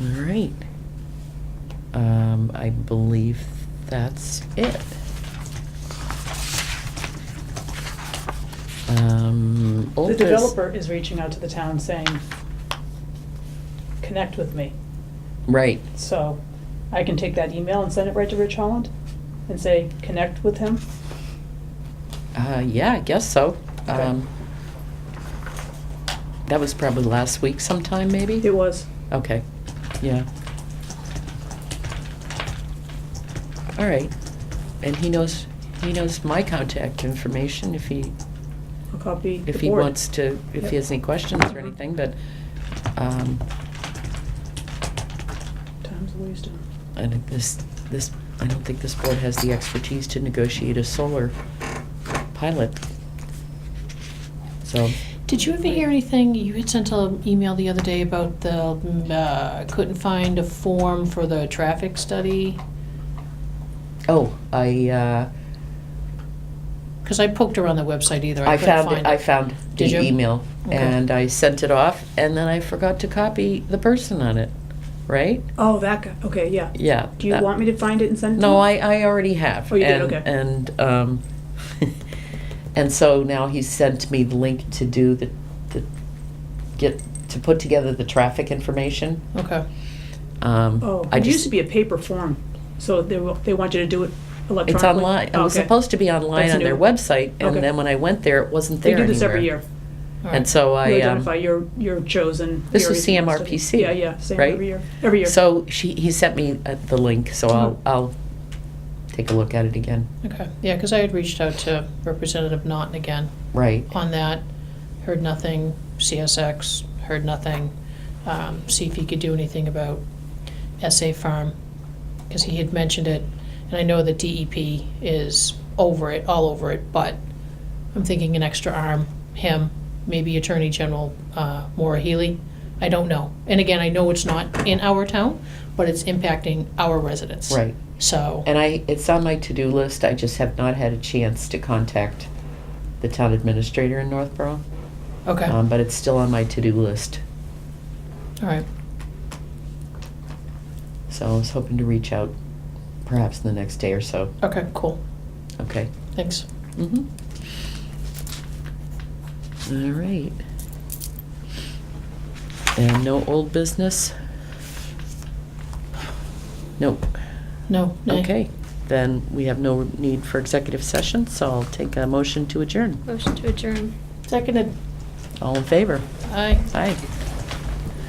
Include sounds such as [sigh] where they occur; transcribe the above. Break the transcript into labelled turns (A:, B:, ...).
A: All right. Um, I believe that's it. Um, old
B: The
A: bus-
B: developer is reaching out to the town saying, connect with me.
A: Right,
B: So I can take that email and send it right to Rich Holland and say, connect with him.
A: uh, yeah, I guess so.
B: Okay.
A: Um, that was probably last week sometime, maybe?
B: It was.
A: Okay, yeah. All right, and he knows, he knows my contact information if he,
B: I'll copy the
A: if he
B: board.
A: wants to, if
B: Yep.
A: he has any questions or anything, but, um,
B: Times the wisdom.
A: I think this, this, I don't think this board has the expertise to negotiate a solar pilot. So,
C: Did you ever hear anything? You had sent an email the other day about the, mm, uh, couldn't find a form for the traffic study?
A: oh, I, uh,
C: Because I poked around the website either, I
A: I
C: couldn't
A: found,
C: find it.
A: it- I found the
C: Did you?
A: email,
C: Okay.
A: and I sent it off, and then I forgot to copy the person on it, right?
B: Oh, that guy, okay, yeah.
A: Yeah.
B: Do you
A: that-
B: want me to find it and send it to
A: No,
B: you?
A: I, I already have.
B: Oh, you did,
A: and-
B: okay.
A: And, um, [laughs] and so now he sent me the link to do the, the, get, to put together the traffic information.
C: Okay,
A: Um,
B: Oh,
A: I
B: it used
A: just-
B: to be a paper form, so they, wa- they want you to do it electronically. Oh,
A: It's online. It was
B: Okay.
A: supposed to be online
B: That's
A: on their
B: new.
A: website, and
B: Okay.
A: then when I went there, it wasn't
B: They
A: there
B: do this every
A: anywhere.
B: year.
C: all
A: And
C: right.
A: so
B: You
A: I, um,
B: identify your, your chosen.
A: This is
B: areas of study.
A: CMRPC,
B: Yeah, yeah, same
A: right?
B: every year, every year.
A: so she, he sent me uh, the link, so I'll,
B: Mhm.
A: I'll take a look at it again.
C: Okay, yeah, because I had reached out to Representative Naughton again
A: Right.
C: on that, heard nothing, CSX, heard nothing. Um, See if he could do anything about SA Farm, because he had mentioned it, and I know that DEP is over it, all over it, but I'm thinking an extra arm, him, maybe Attorney General uh, Maura Healy, I don't know. And again, I know it's not in our town, but it's impacting our residents.
A: Right.
C: So,
A: And I, it's on my to-do list, I just have not had a chance to contact the town administrator in Northborough.
C: okay, all
A: Um, but it's still on my to-do list,
C: right,
A: so I was hoping to reach out perhaps in the next day or so,
C: okay, cool,
A: okay?
C: thanks.
A: Mm-hmm. All right. And no old business? Nope.
C: No, nay.
A: Okay, then we have no need for executive session, so I'll take a motion to adjourn.
D: Motion to adjourn.
C: Seconded.
A: All in favor?
C: Aye.
A: Aye.